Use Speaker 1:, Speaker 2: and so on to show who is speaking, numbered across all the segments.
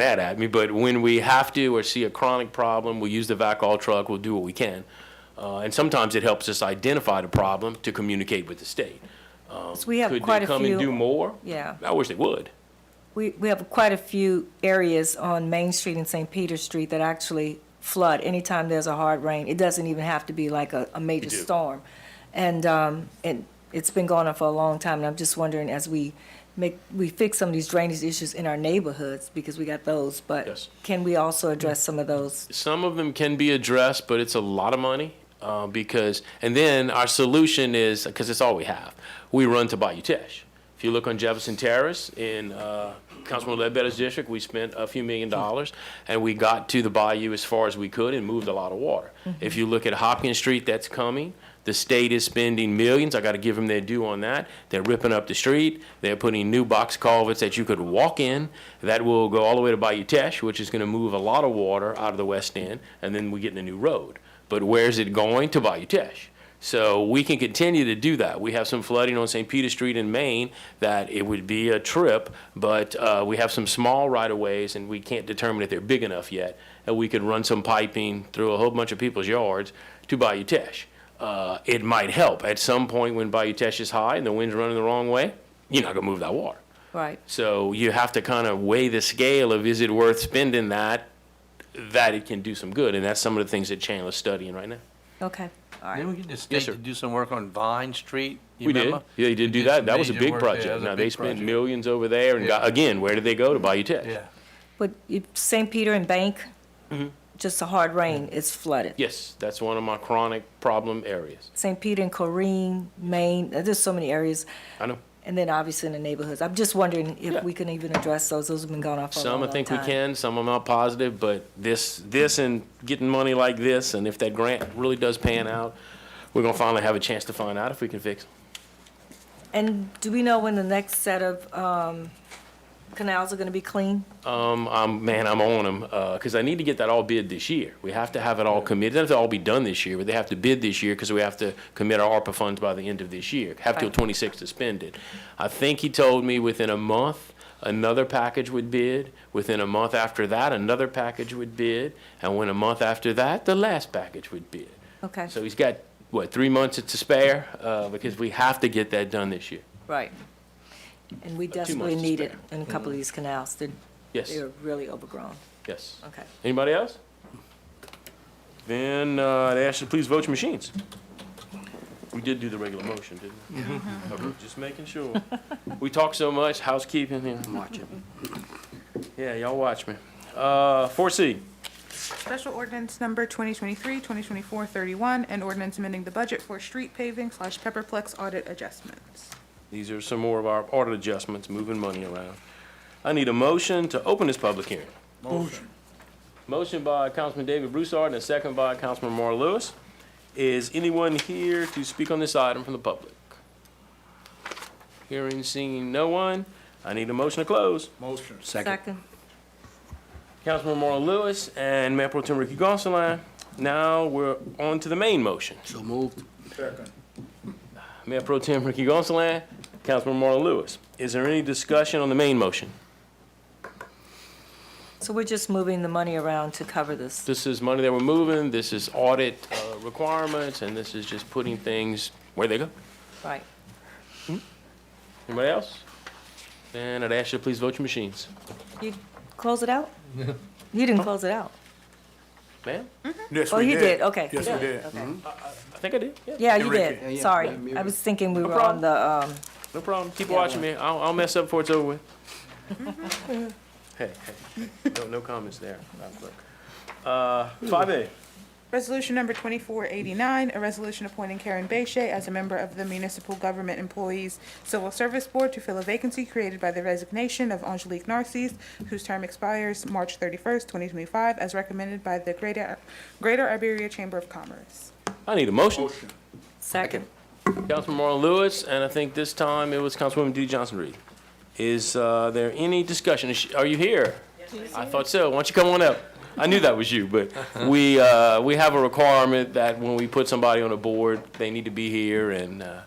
Speaker 1: mad at me, but when we have to or see a chronic problem, we use the VACOL truck, we'll do what we can. Uh, and sometimes it helps us identify the problem to communicate with the state. Um,
Speaker 2: So we have
Speaker 1: Could
Speaker 2: quite
Speaker 1: they
Speaker 2: a
Speaker 1: come and do
Speaker 2: few,
Speaker 1: more?
Speaker 2: yeah,
Speaker 1: I wish they would.
Speaker 2: we, we have quite a few areas on Main Street and St. Peter Street that actually flood anytime there's a hard rain. It doesn't even have to be like a, a major
Speaker 1: do.
Speaker 2: storm. And, um, and it's been going on for a long time, and I'm just wondering as we make, we fix some of these drainage issues in our neighborhoods, because we got those, but
Speaker 1: Yes.
Speaker 2: can we also address some of those?
Speaker 1: Some of them can be addressed, but it's a lot of money uh, because, and then our solution is, because it's all we have, we run to Bayou Teche. If you look on Jefferson Terrace in uh, Councilman Ledbetter's district, we spent a few million dollars and we got to the bayou as far as we could and moved a lot of water. If you look at Hopkins Street, that's coming. The state is spending millions. I got to give them their due on that. They're ripping up the street. They're putting new box culverts that you could walk in. That will go all the way to Bayou Teche, which is going to move a lot of water out of the west end, and then we get in a new road. But where's it going? To Bayou Teche. So we can continue to do that. We have some flooding on St. Peter Street in Maine that it would be a trip, but uh, we have some small right-of-ways and we can't determine if they're big enough yet. And we could run some piping through a whole bunch of people's yards to Bayou Teche. Uh, It might help. At some point when Bayou Teche is high and the wind's running the wrong way, you're not gonna move that water.
Speaker 2: Right.
Speaker 1: So you have to kind of weigh the scale of is it worth spending that, that it can do some good? And that's some of the things that Chandler's studying right now.
Speaker 2: Okay, all right.
Speaker 3: Didn't we get the state to
Speaker 1: sir.
Speaker 3: do some work on Vine Street? You
Speaker 1: We did.
Speaker 3: remember?
Speaker 1: Yeah, they did
Speaker 3: They
Speaker 1: do that.
Speaker 3: some
Speaker 1: That was a
Speaker 3: major
Speaker 1: big
Speaker 3: work there. That
Speaker 1: project.
Speaker 3: was a
Speaker 1: Now, they
Speaker 3: big
Speaker 1: spent
Speaker 3: project.
Speaker 1: millions over there and got,
Speaker 3: Yeah.
Speaker 1: again, where did they go? To Bayou Tech?
Speaker 3: Yeah.
Speaker 2: But if St. Peter and Bank,
Speaker 1: Mm-hmm.
Speaker 2: just a hard rain, it's flooded.
Speaker 1: Yes, that's one of my chronic problem areas.
Speaker 2: St. Peter and Corrine, Maine, uh, there's so many areas,
Speaker 1: I know.
Speaker 2: and then obviously in the neighborhoods. I'm just wondering
Speaker 1: Yeah.
Speaker 2: if we can even address those, those have been going on for a long,
Speaker 1: Some I
Speaker 2: long
Speaker 1: think we
Speaker 2: time.
Speaker 1: can, some I'm not positive, but this, this and getting money like this, and if that grant really does pan out, we're gonna finally have a chance to find out if we can fix it.
Speaker 2: And do we know when the next set of um, canals are gonna be clean?
Speaker 1: Um, I'm, man, I'm on them, because I need to get that all bid this year. We have to have it all committed. It doesn't have to all be done this year, but they have to bid this year because we have to commit our ARPA funds by the end of this year. Have till
Speaker 2: Right.
Speaker 1: twenty-six to spend it. I think he told me within a month, another package would bid. Within a month after that, another package would bid. And when a month after that, the last package would bid.
Speaker 2: Okay,
Speaker 1: So he's got, what, three months to spare, uh, because we have to get that done this year.
Speaker 2: right. And we desperately
Speaker 1: months to
Speaker 2: need it
Speaker 1: spare. Mm-hmm.
Speaker 2: in a couple of these canals, they're,
Speaker 1: Yes,
Speaker 2: they're really overgrown,
Speaker 1: yes.
Speaker 2: okay.
Speaker 1: Anybody else? Then uh, I'd ask you to please vote your machines. We did do the regular motion, didn't we? Okay, Just making sure. We talk so much, housekeeping, yeah, I'm watching. Yeah, y'all watch me. Uh, four C,
Speaker 4: Special ordinance number 2023-2024-31, and ordinance amending the budget for street paving slash pepperplex audit adjustments.
Speaker 1: these are some more of our audit adjustments, moving money around. I need a motion to open this public hearing. Motion. Motion by Councilman David Broussard and a second by Councilman Marl Lewis. Is anyone here to speak on this item from the public? Hearing, seeing no one, I need a motion to close.
Speaker 3: Motion.
Speaker 2: Second,
Speaker 1: Councilman Marl Lewis and Mayor Pro Tem Ricky Gonsalas. Now we're on to the main motion.
Speaker 3: So moved.
Speaker 1: Mayor Pro Tem Ricky Gonsalas, Councilman Marl Lewis. Is there any discussion on the main motion?
Speaker 2: so we're just moving the money around to cover this.
Speaker 1: This is money that we're moving, this is audit uh, requirements, and this is just putting things where they go.
Speaker 2: Right.
Speaker 1: Anybody else? Then I'd ask you to please vote your machines.
Speaker 2: You close it out? You didn't close it out.
Speaker 1: Ma'am?
Speaker 5: Yes,
Speaker 2: Oh,
Speaker 5: we
Speaker 2: you
Speaker 5: did.
Speaker 2: did, okay.
Speaker 5: Yes, we did. Mm-hmm.
Speaker 1: I think I did, yeah.
Speaker 2: Yeah, you
Speaker 5: Enrique.
Speaker 2: did, sorry. I was thinking we were
Speaker 1: problem.
Speaker 2: on the, um,
Speaker 1: No problem. Keep watching me. I'll, I'll mess up before it's over with. Hey, hey, hey. no, no comments there. Uh, Five A.
Speaker 4: Resolution number 2489, a resolution appointing Karen Bechet as a member of the Municipal Government Employees Civil Service Board to fill a vacancy created by the resignation of Angelique Narcisse, whose term expires March 31st, 2025, as recommended by the Greater Greater Iberia Chamber of Commerce.
Speaker 1: I need a motion.
Speaker 2: second.
Speaker 1: Councilman Marlon Lewis, and I think this time it was Councilwoman D. Johnson Reed. Is, uh, there any discussion? Is she- Are you here? I thought so. Why don't you come on up? I knew that was you, but we, uh, we have a requirement that when we put somebody on a board, they need to be here and, uh,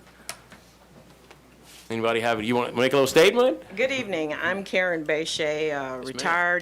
Speaker 1: anybody have it? You want to make a little statement?
Speaker 6: Good evening. I'm Karen Bechet, uh, retired